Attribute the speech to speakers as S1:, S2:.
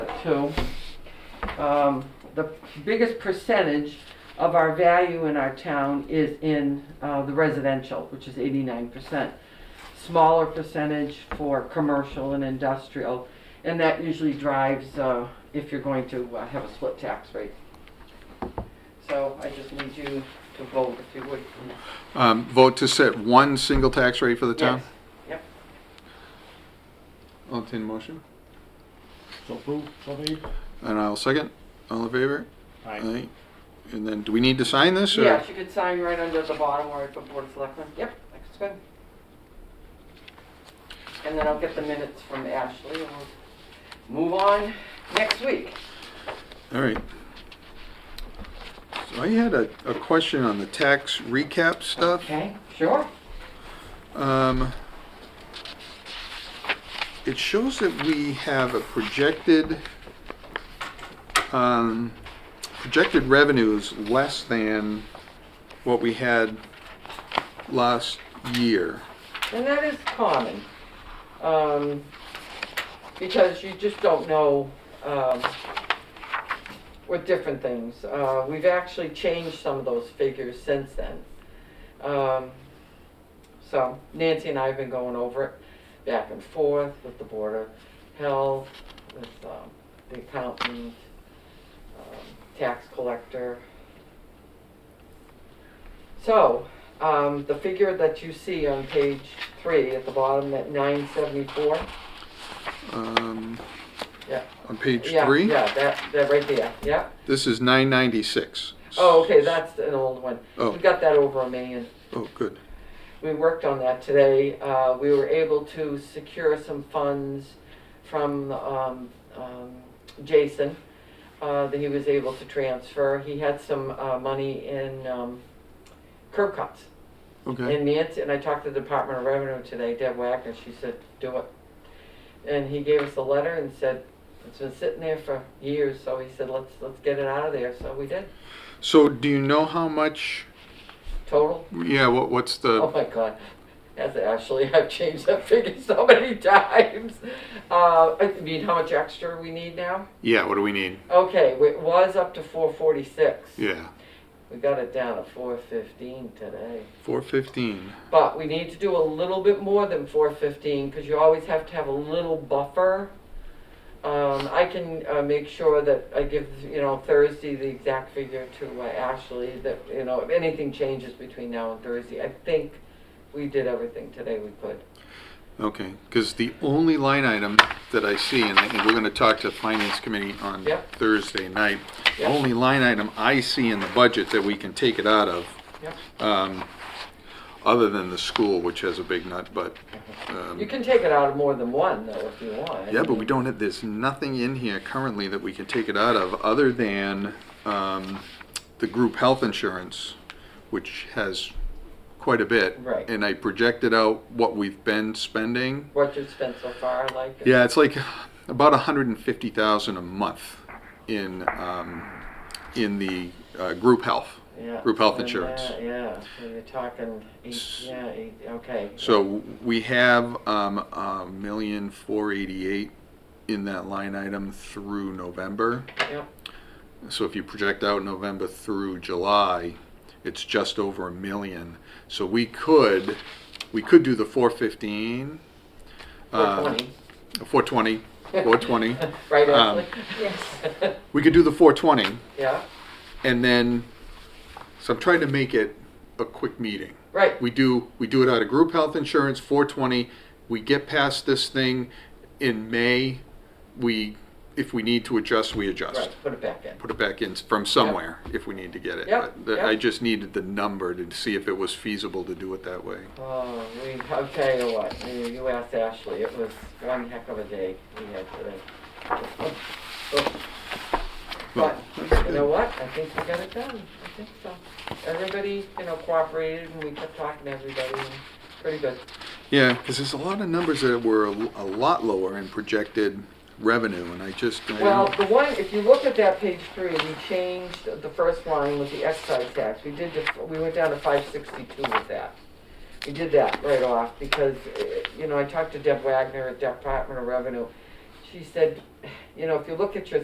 S1: to, um, the biggest percentage of our value in our town is in, uh, the residential, which is eighty-nine percent. Smaller percentage for commercial and industrial, and that usually drives, uh, if you're going to uh, have a split tax rate. So I just need you to vote if you would.
S2: Um, vote to set one single tax rate for the town?
S1: Yes. Yep.
S2: I'll entertain a motion,
S3: So approved, so made.
S2: and I'll second. All in favor?
S3: Aye.
S2: And then, do we need to sign this, or?
S1: Yes, you could sign right under the bottom where it put Board of Selectmen. Yep, that's good. And then I'll get the minutes from Ashley and we'll move on next week.
S2: All right. So I had a, a question on the tax recap stuff.
S1: Okay, sure.
S2: Um, it shows that we have a projected, um, projected revenues less than what we had last year.
S1: And that is common. Um, because you just don't know, um, with different things. Uh, we've actually changed some of those figures since then. Um, so Nancy and I have been going over it back and forth with the Board of Health, with, um, the accountant, um, tax collector. So, um, the figure that you see on page three at the bottom, that nine seventy-four.
S2: Um,
S1: Yeah.
S2: on page
S1: Yeah,
S2: three,
S1: Yeah, that, that right there, yeah.
S2: this is nine ninety-six.
S1: Oh, okay, that's an old one.
S2: Oh.
S1: We got that over a million.
S2: Oh, good.
S1: We worked on that today. Uh, we were able to secure some funds from, um, um, Jason, uh, that he was able to transfer. He had some, uh, money in, um, curb cuts.
S2: Okay.
S1: And Nancy, and I talked to the Department of Revenue today, Deb Wagner, she said, do it. And he gave us a letter and said, it's been sitting there for years, so he said, let's, let's get it out of there, so we did,
S2: So do you know how much,
S1: total.
S2: yeah, what, what's the?
S1: Oh my god, that's actually, I've changed that figure so many times. Uh, I mean, how much extra we need now?
S2: Yeah, what do we need?
S1: Okay, it was up to four forty-six.
S2: Yeah,
S1: We got it down to four fifteen today.
S2: four fifteen.
S1: But we need to do a little bit more than four fifteen, because you always have to have a little buffer. Um, I can, uh, make sure that I give, you know, Thursday the exact figure to uh, Ashley, that, you know, if anything changes between now and Thursday, I think we did everything today we could.
S2: Okay, because the only line item that I see, and I think we're gonna talk to Finance Committee on
S1: Yeah.
S2: Thursday night, the
S1: Yeah.
S2: only line item I see in the budget that we can take it out of,
S1: Yep.
S2: um, other than the school, which has a big nut, but,
S1: You
S2: um,
S1: can take it out of more than one, though, if you want.
S2: yeah, but we don't have, there's nothing in here currently that we can take it out of, other than, um, the group health insurance, which has quite a bit.
S1: Right.
S2: And I projected out what we've been spending.
S1: What you've spent so far, like. it.
S2: Yeah, it's like about 150,000 a month in um, in the uh, group health.
S1: Yeah.
S2: Group health
S1: And, uh,
S2: insurance.
S1: Yeah, so you're talking, eight, yeah, eight, okay.
S2: So we have um, a million four eighty-eight in that line item through November.
S1: Yep,
S2: So if you project out November through July, it's just over a million. So we could we could do the 415,
S1: four
S2: uh,
S1: twenty.
S2: 420, 420.
S1: Right,
S2: Um,
S1: Ashley? Yes.
S2: we could do the 420.
S1: Yeah,
S2: and then so I'm trying to make it a quick meeting.
S1: right,
S2: We do we do it out of group health insurance 420. We get past this thing in May. We if we need to adjust, we adjust.
S1: right, put it back in.
S2: Put it back in from somewhere if we need to get it.
S1: Yep,
S2: But the- I
S1: yep.
S2: just needed the number to see if it was feasible to do it that way.
S1: Oh, we, I'll tell you what, you you asked Ashley, it was one heck of a day we had today. But, you know what, I think we got it done, I think so. Everybody, you know, cooperated and we kept talking to everybody, and pretty good.
S2: Yeah, because there's a lot of numbers that were a, a lot lower in projected revenue, and I just I
S1: Well,
S2: don't-
S1: the one, if you look at that page three, we changed the first line with the excise tax. We did, def- we went down to five sixty-two with that. We did that right off because, eh, you know, I talked to Deb Wagner at Department of Revenue. She said, you know, if you look at your